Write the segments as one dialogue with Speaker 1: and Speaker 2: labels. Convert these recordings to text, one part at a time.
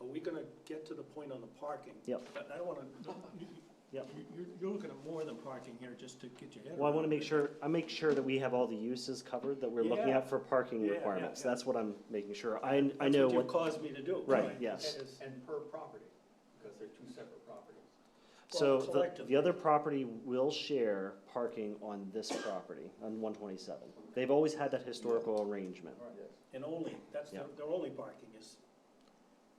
Speaker 1: we're gonna get to the point on the parking.
Speaker 2: Yep.
Speaker 1: I I don't wanna, you-
Speaker 2: Yep.
Speaker 1: you- you're, you're looking at more than parking here, just to get your head around.
Speaker 2: Well, I want to make
Speaker 1: it.
Speaker 2: sure, I make sure that we have all the uses covered that we're looking
Speaker 1: Yeah.
Speaker 2: at for parking
Speaker 1: Yeah, yeah,
Speaker 2: requirements.
Speaker 1: yeah.
Speaker 2: That's what I'm making sure. I, I know
Speaker 1: That's what you
Speaker 2: what,
Speaker 1: caused me to do.
Speaker 2: right, yes.
Speaker 3: And, and per property, because they're two separate properties.
Speaker 2: So
Speaker 1: Well,
Speaker 2: the,
Speaker 1: collectively.
Speaker 2: the other property will share parking on this property, on one twenty-seven. They've always had that historical arrangement.
Speaker 1: And only, that's their,
Speaker 2: Yeah.
Speaker 1: their only parking is.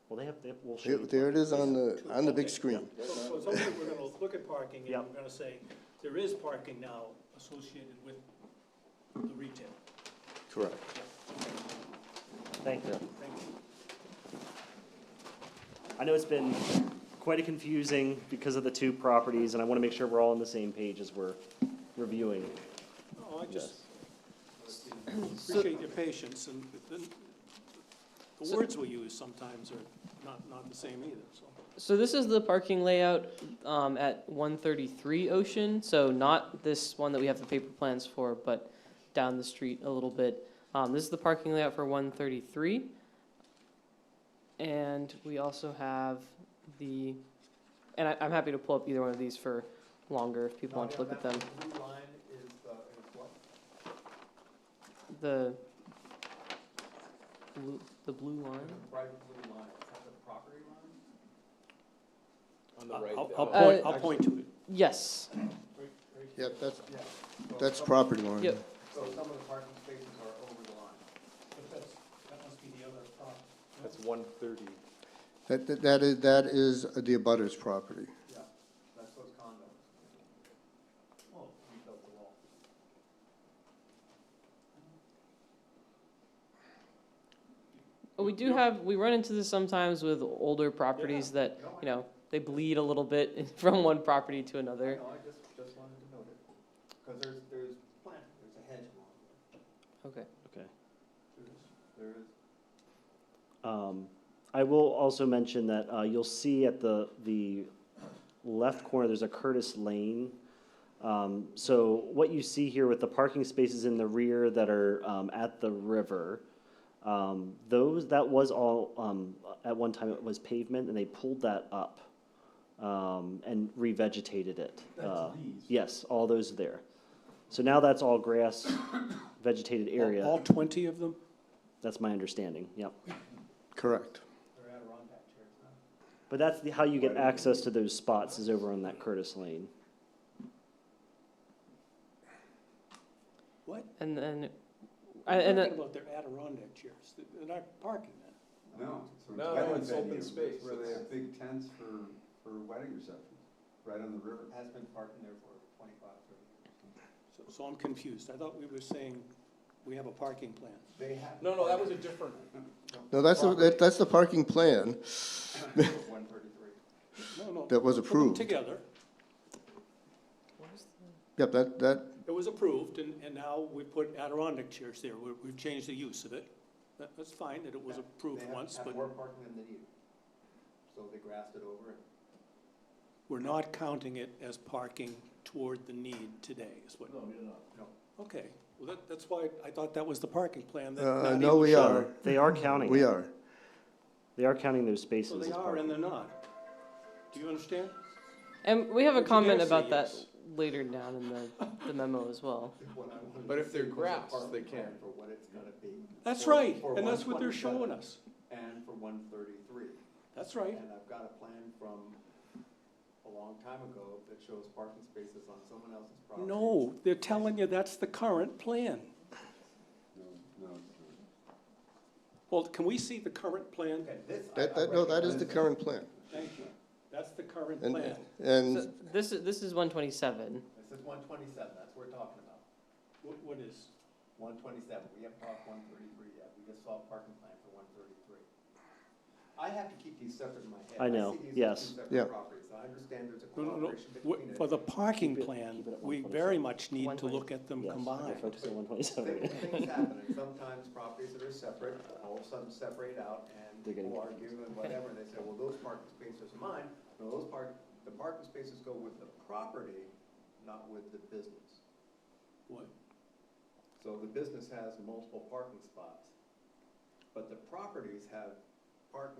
Speaker 2: Well, they have, they will
Speaker 4: Here-
Speaker 2: share.
Speaker 4: There it is on the, on the
Speaker 1: Okay,
Speaker 4: big screen.
Speaker 1: So, so it's only we're gonna look at parking and
Speaker 2: Yep.
Speaker 1: we're gonna say, there is parking now associated with the retail.
Speaker 4: Correct.
Speaker 2: Thank you.
Speaker 1: Thank you.
Speaker 2: I know it's been quite a confusing because of the two properties, and I want to make sure we're all on the same page as we're reviewing
Speaker 1: No, Oh, I just
Speaker 2: this.
Speaker 1: appreciate your patience, and the, the words we use sometimes are not, not the same either, so.
Speaker 5: So this is the parking layout um, at 133 Ocean, so not this one that we have the paper plans for, but down the street a little bit. Um, This is the parking layout for 133. And we also have the, and I- I'm happy to pull up either one of these for longer if people want to look at them.
Speaker 3: Blue line is, uh, is what?
Speaker 5: The, blue- the blue line?
Speaker 3: Bright blue line, is that the property line?
Speaker 6: On the right.
Speaker 1: I'll,
Speaker 6: there.
Speaker 1: I'll
Speaker 5: Uh,
Speaker 1: point, I'll point to it.
Speaker 5: Yes,
Speaker 4: Yep, that's,
Speaker 3: Yeah. So
Speaker 4: that's
Speaker 3: some-
Speaker 4: property line.
Speaker 5: yep.
Speaker 3: So some of the parking spaces are over the line.
Speaker 1: But that's, that must be the other problem.
Speaker 6: That's one thirty.
Speaker 4: That, that- that is, that is the abutter's property.
Speaker 3: Yeah, that's those condos.
Speaker 1: Oh,
Speaker 3: We built the wall.
Speaker 5: Well, we do have, we run into this sometimes with older properties that, you know, they bleed a little bit from one property to another.
Speaker 3: No, I just, just wanted to note it, because there's, there's plant, there's a hedge along
Speaker 5: Okay.
Speaker 2: Okay.
Speaker 3: there. There is,
Speaker 2: Um, I will also mention that, uh, you'll see at the, the left corner, there's a Curtis Lane. Um, so what you see here with the parking spaces in the rear that are, um, at the river, um, those, that was all, um, at one time it was pavement and they pulled that up, um, and revegetated it. Uh, Yes, all those there. So now that's all grass vegetated
Speaker 1: All
Speaker 2: area.
Speaker 1: twenty of them?
Speaker 2: That's my understanding, yep.
Speaker 4: Correct.
Speaker 3: there are Adirondack chairs now.
Speaker 2: But that's the, how you get access to those spots is over on that Curtis Lane.
Speaker 1: What?
Speaker 5: And then,
Speaker 1: I'm
Speaker 5: and, uh,
Speaker 1: Talking
Speaker 5: and,
Speaker 1: about their Adirondack chairs, They're- they're not parking then.
Speaker 7: No.
Speaker 6: No,
Speaker 7: wedding
Speaker 6: it's open
Speaker 7: venue,
Speaker 6: space.
Speaker 7: Where they
Speaker 6: It's-
Speaker 7: have big tents for, for wedding receptions, right on the river.
Speaker 3: Has been parking there for twenty-five, thirty years.
Speaker 1: So, so I'm confused. I thought we were saying we have a parking plan.
Speaker 3: They have.
Speaker 6: No, no, that was a different,
Speaker 4: No, that's, the- that- that's the parking plan
Speaker 3: One thirty-three.
Speaker 1: No, no.
Speaker 4: that was
Speaker 1: Put them
Speaker 4: approved.
Speaker 1: Together.
Speaker 4: Yep, that, that,
Speaker 1: It was approved, and, and now we put Adirondack chairs there. We, we've changed the use of it. That, that's fine, that it was approved once,
Speaker 3: They have-
Speaker 1: but
Speaker 3: have more parking than they need. So they grassed it over and
Speaker 1: we're not counting it as parking toward the need today, is what. No, we're not.
Speaker 3: No.
Speaker 1: Okay, well, that, that's why I thought that was the parking plan. that
Speaker 4: uh,
Speaker 1: not
Speaker 4: no,
Speaker 1: even-
Speaker 4: we are,
Speaker 2: They are counting.
Speaker 4: we
Speaker 2: it.
Speaker 4: are.
Speaker 2: They are counting those
Speaker 1: So
Speaker 2: spaces
Speaker 1: they
Speaker 2: as
Speaker 1: are and
Speaker 2: parking.
Speaker 1: they're not. Do you understand?
Speaker 5: and we have a
Speaker 1: Would you
Speaker 5: comment
Speaker 1: dare say
Speaker 5: about that
Speaker 1: yes?
Speaker 5: later down in the, the memo as well.
Speaker 3: what I wanted
Speaker 6: But
Speaker 3: to
Speaker 6: if they're
Speaker 3: see was a
Speaker 6: grass,
Speaker 3: parking
Speaker 6: they
Speaker 3: plan
Speaker 6: can.
Speaker 3: For what it's gonna be.
Speaker 1: That's
Speaker 3: for-
Speaker 1: right,
Speaker 3: for
Speaker 1: and that's what they're
Speaker 3: 127
Speaker 1: showing us.
Speaker 3: And for one thirty-three.
Speaker 1: That's right.
Speaker 3: And I've got a plan from a long time ago that shows parking spaces on someone else's property.
Speaker 1: No, they're telling you that's the current plan.
Speaker 7: No, no, it's not.
Speaker 1: Well, can we see the current plan?
Speaker 3: Okay, this. I-
Speaker 4: That,
Speaker 3: I
Speaker 4: that, no, that is the
Speaker 3: recognize.
Speaker 4: current plan.
Speaker 1: Thank you. That's the current
Speaker 4: And,
Speaker 1: plan.
Speaker 5: So
Speaker 4: and
Speaker 5: this is, this is one twenty-seven.
Speaker 3: This is one twenty-seven, that's what we're talking about.
Speaker 1: What, what is?
Speaker 3: One twenty-seven, we haven't talked one thirty-three yet, we just saw a parking plan for one thirty-three. I have to keep these separate in my head.
Speaker 2: I know,
Speaker 3: see these as
Speaker 2: yes.
Speaker 3: two separate
Speaker 4: Yeah.
Speaker 3: properties, I understand there's a
Speaker 1: No, no, no.
Speaker 3: cooperation between
Speaker 1: W-
Speaker 3: it.
Speaker 1: For the parking
Speaker 2: Keep it-
Speaker 1: plan,
Speaker 2: keep it at
Speaker 1: we
Speaker 2: 127.
Speaker 1: very much need to
Speaker 5: 120.
Speaker 1: look at them
Speaker 2: Yes,
Speaker 1: combined.
Speaker 2: they're focused on one
Speaker 3: Things-
Speaker 2: twenty-seven.
Speaker 3: Things happen, and sometimes properties that are separate, all of a sudden separate out, and
Speaker 2: They're getting
Speaker 3: people argue and whatever, and they say, well, those parking spaces are mine. No, those park, the parking spaces go with the property, not with the business.
Speaker 1: What?
Speaker 3: So the business has multiple parking spots, but the properties have parking